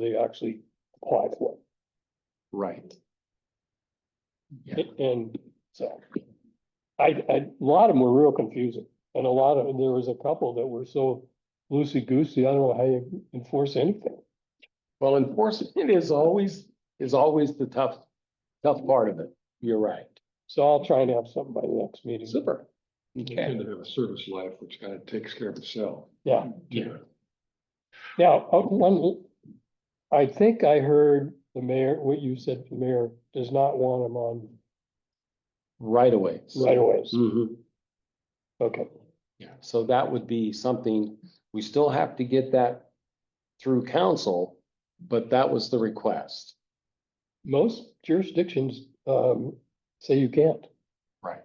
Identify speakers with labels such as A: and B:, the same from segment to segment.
A: they actually apply for.
B: Right. Yeah,
A: And so. I, I, a lot of them were real confusing and a lot of, there was a couple that were so loosey goosey, I don't know how you enforce anything.
B: well, enforcement is always, is always the tough, tough part of it. You're right.
A: So I'll try and have something by the next meeting. Mm-hmm.
B: Super.
C: They
B: Okay.
C: tend to have a service life, which kind of takes care of itself.
A: Yeah.
C: Yeah.
A: Now, uh, one, I think I heard the mayor, what you said, the mayor does not want them on
B: Right away.
A: right away.
B: Mhm.
A: Okay,
B: Yeah, so that would be something, we still have to get that through council, but that was the request.
A: most jurisdictions, um, say you can't.
B: Right.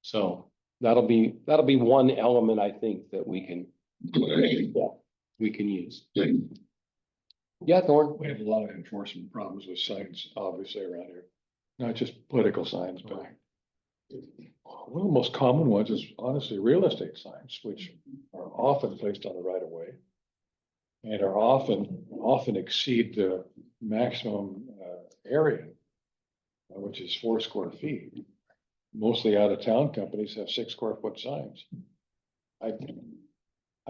B: So that'll be, that'll be one element, I think, that we can, we can use.
C: We
B: Yeah, Thorn?
C: have a lot of enforcement problems with signs, obviously, around here. Not just political signs, but one of the most common ones is honestly real estate signs, which are often placed on the right of way. And are often, often exceed the maximum uh, area, uh, which is four square feet. Mostly out of town companies have six square foot signs. I,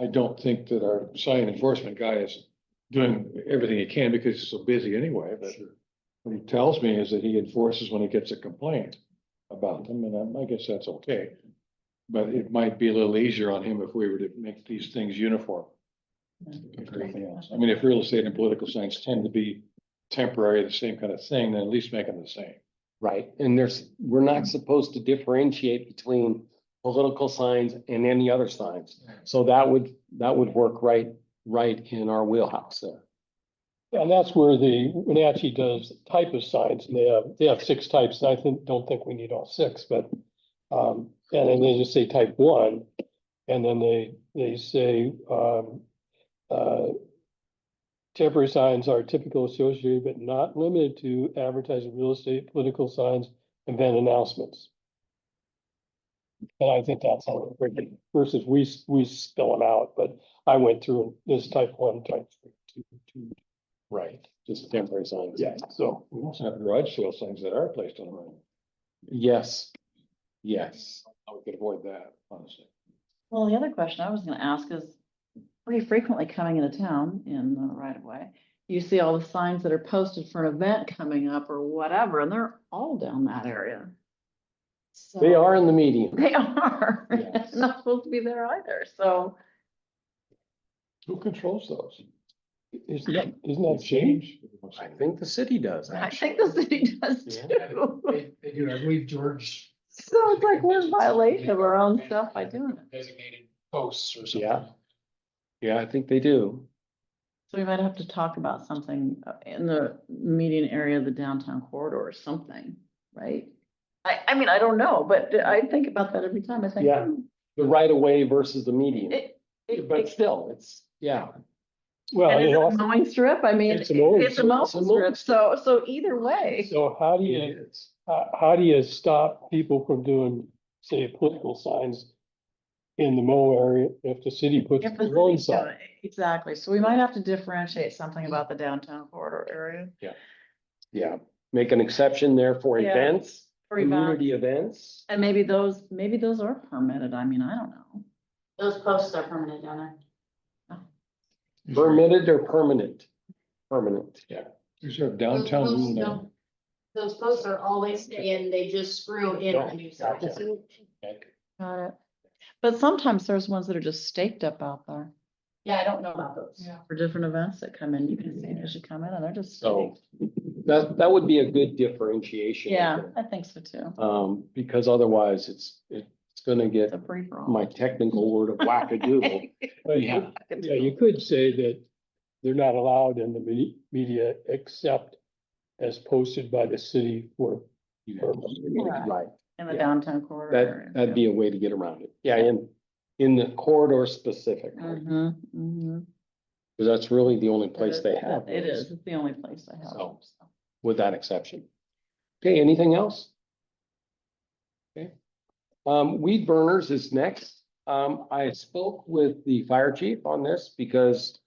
C: I don't think that our sign enforcement guy is doing everything he can because he's so busy anyway, but what he tells me is that he enforces when he gets a complaint about them, and I- I guess that's okay. But it might be a little easier on him if we were to make these things uniform. If nothing else. I mean, if real estate and political signs tend to be temporary, the same kind of thing, then at least make them the same.
B: Right, and there's, we're not supposed to differentiate between political signs and any other signs. So that would, that would work right, right in our wheelhouse there.
A: And that's where the, Wenatchee does type of signs, and they have, they have six types, and I think, don't think we need all six, but. Um, and then they just say type one, and then they, they say, um, uh. Temporary signs are typical associated, but not limited to advertising, real estate, political signs, event announcements. And I think that's how, it versus we, we spell them out, but I went through this type one, type two, two,
B: Right. Just temporary signs.
A: yeah, so,
C: We also have garage sale signs that are placed on the road.
B: Yes, yes,
C: I could avoid that, honestly.
D: Well, the other question I was gonna ask is, pretty frequently coming into town in the right of way, you see all the signs that are posted for an event coming up or whatever, and they're all down that area.
B: they
D: So-
B: are in the medium.
D: They are.
B: Yes.
D: Not supposed to be there either, so.
C: Who controls those?
A: isn't that, isn't that shady?
C: change?
B: I think the city does,
D: I
B: actually.
D: think the city does
B: Yeah.
D: too.
E: They, they do, I believe George.
D: So it's like we're in violation of our own stuff by doing it.
E: Designated posts or something.
B: Yeah. Yeah, I think they do.
D: So we might have to talk about something uh, in the median area of the downtown corridor or something, right? I, I mean, I don't know, but I think about that every time. I think.
B: Yeah.
D: hmm,
B: The right of way versus the medium.
D: It, it,
B: But
D: it-
B: still, it's, yeah,
A: Well,
D: and
A: and
D: is it a
A: also,
D: mowing strip? I mean,
A: It's a mowing
D: it's a
A: strip.
D: mowing
B: It's a mowing
D: strip, so, so either way.
A: so how do
B: it
A: you,
B: is.
A: how, how do you stop people from doing, say, political signs? In the Mo area, if the city puts
D: if the
A: their own
D: city's doing
A: sign,
D: it, Exactly. So we might have to differentiate something about the downtown corridor area.
B: Yeah, make an exception there for
D: Yeah.
B: events,
D: for events.
B: community events.
D: And maybe those, maybe those are permitted. I mean, I don't know.
F: Those posts are permanent, don't they?
B: Mm-hmm. Permitted or permanent? Permanent.
C: Is there a
F: Those
C: downtown
F: posts
C: rule now?
F: don't- Those posts are always in, they just screw in a new sign.
D: Got it. But sometimes there's ones that are just staked up out there
F: Yeah, I don't know about those.
D: for different events that come in. You can see as you come in and they're just.
B: So
D: staked.
B: that, that would be a good differentiation. I
D: Yeah,
B: think.
D: I think so too.
B: Um, because otherwise it's, it's gonna
D: It's
B: get
D: a free for all.
B: my technical word of wackadoodle.
A: but you-
B: Yeah.
A: yeah, you could say that. They're not allowed in the me- media except as posted by the city for. for-
B: Right,
D: In the
B: yeah.
D: downtown corridor. area.
B: that, that'd be a way to get around it. Yeah, in, in the corridor specifically,
D: Mhm, mhm.
B: because that's really the only
D: It
B: place
D: is,
B: they have.
D: It
B: those,
D: is. It's the only place I have.
B: So.
D: them, so.
B: With that exception. Okay, anything else? Okay. Um, weed burners is next. Um, I spoke with the fire chief on this because